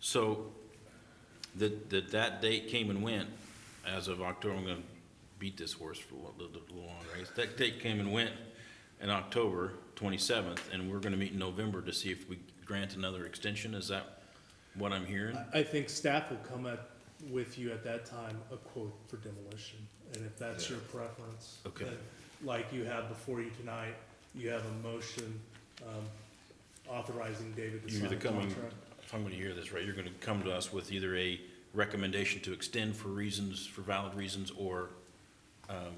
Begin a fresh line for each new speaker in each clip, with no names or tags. So that, that that date came and went as of October, I'm gonna beat this horse for a little, little longer. I guess That date came and went in October twenty-seventh, and we're gonna meet in November to see if we grant another extension. Is that what I'm hearing?
I think staff will come up with you at that time a quote for demolition, and if that's your preference.
Okay.
then, Like you have before you tonight, you have a motion, um, authorizing David to
You're
sign
either
the
coming,
contract.
if I'm gonna hear this right, you're gonna come to us with either a recommendation to extend for reasons, for valid reasons, or, um,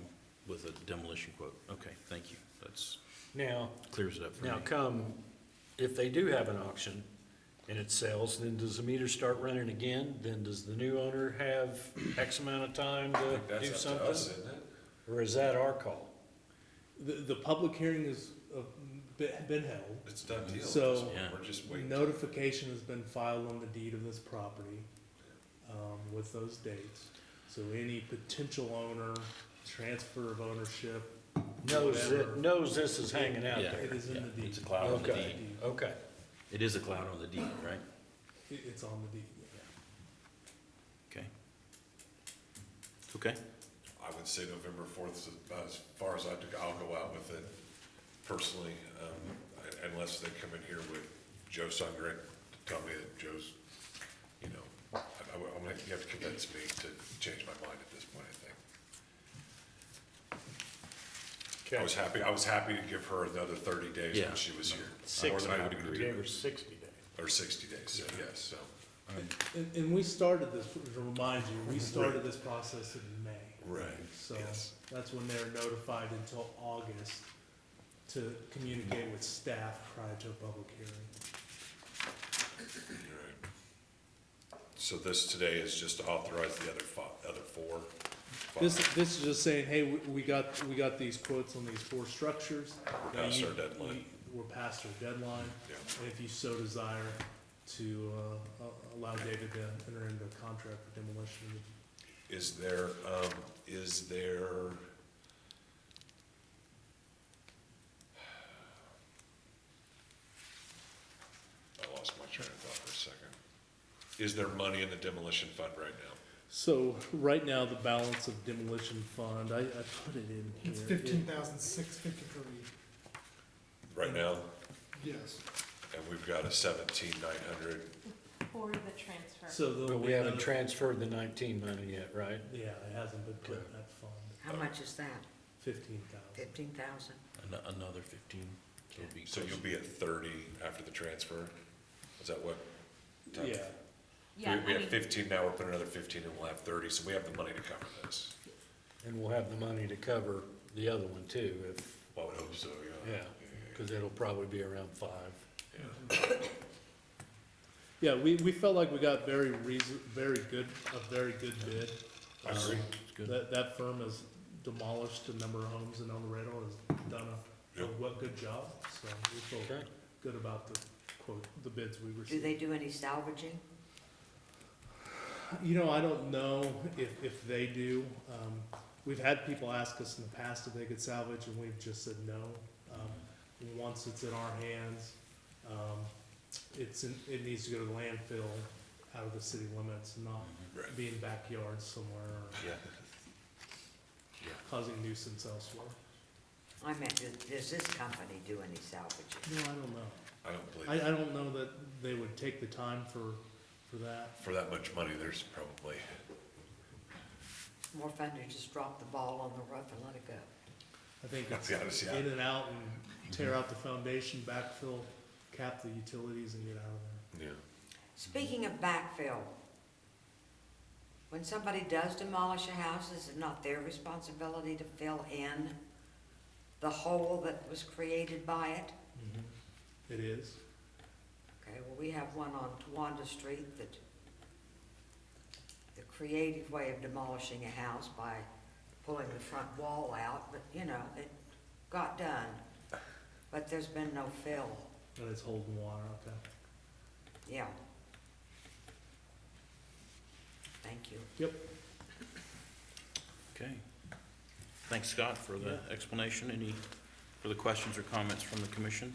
with a demolition quote. Okay, thank you. That's,
Now,
clears it up for me.
now come, if they do have an auction and it sells, then does the meter start running again? Then does the new owner have X amount of time to do
That's up to us,
something?
isn't it?
Or is that our call?
The, the public hearing is, uh, be- been held.
It's a done deal. at this
So-
point.
Yeah.
We're just waiting.
Notification has been filed on the deed of this property, um, with those dates. So any potential owner, transfer of ownership,
Knows
Whatever.
that, knows this is hanging out
Yeah.
it
there.
is in the
Yeah,
deed.
it's a cloud
on the Okay.
deed.
Okay,
It is a cloud on the deed, right?
It- it's on the deed.
Okay. Okay,
I would say November fourth, as far as I, took- I'll go out with it personally, um, I- unless they come in here with Joe Sungren, to tell me that Joe's, you know, I, I, would- I'm gonna, you have to convince me to change my mind at this point, I think. I was happy, I was happy to give her another thirty days
Yeah.
when she was here. More
six,
than
I
happy
would
to
agree,
do
or
it.
sixty days.
Or sixty days, so, yes, so,
And, and we started this, to remind you, we started this process in May.
right,
So
yes.
that's when they're notified until August to communicate with staff prior to a public hearing.
Alright. So this today is just to authorize the other fi- other four? five.
This, this is just saying, hey, we, we got, we got these quotes on these four structures.
We're
Now
past
you-
our deadline.
you- We're past our deadline,
Yeah.
and if you so desire to, uh, a- allow David to enter into a contract for demolition.
Is there, um, is there? I lost my train of thought for a second. Is there money in the demolition fund right now?
So, right now, the balance of demolition fund, I, I put it in here.
It's fifteen thousand six fifty per week,
Right now,
yes.
and we've got a seventeen nine hundred.
For the transfer.
So there'll
But
be
we haven't
another-
transferred the nineteen money yet, right?
Yeah, it hasn't been put in that fund,
How much is that?
fifteen thousand.
Fifteen thousand?
Ano- another fifteen. So it'll be
So you'll
close.
be at thirty after the transfer? Is that what?
Yeah,
We,
Yeah,
we
I
have
mean,
fifteen now, we're putting another fifteen and we'll have thirty, so we have the money to cover this.
And we'll have the money to cover the other one too, if,
Well, I would hope so, yeah.
yeah, because it'll probably be around five.
yeah, we, we felt like we got very reason, very good, a very good bid. Um,
I agree.
It's good.
That, that firm has demolished a number of homes in El Dorado, has done a, a
Yep.
what good job, so we feel
Okay.
good about the quote, the bids we
Do
received.
they do any salvaging?
You know, I don't know if, if they do. Um, we've had people ask us in the past if they could salvage, and we've just said no. Um, once it's in our hands, um, it's in, it needs to go to the landfill out of the city limits, not
Right.
be in backyards somewhere or
Yeah.
causing nuisance elsewhere.
I meant, do- does this company do any salvaging?
No, I don't know.
I don't believe,
I, I don't know that they would take the time for, for that.
for that much money, there's probably,
More fun to just drop the ball on the roof and let it go.
I think
That's
it's
the honest, yeah. Mm-hmm.
in and out and tear out the foundation, backfill, cap the utilities and get out of there.
yeah.
Speaking of backfill, when somebody does demolish a house, is it not their responsibility to fill in the hole that was created by it?
Mm-hmm. It is.
Okay, well, we have one on Tawanda Street that, the creative way of demolishing a house by pulling the front wall out, but, you know, it got done. But there's been no fill,
And it's holding water, okay.
yeah. Thank you.
Yep.
Okay. Thanks, Scott, for the explanation. Any further questions or comments from the commission?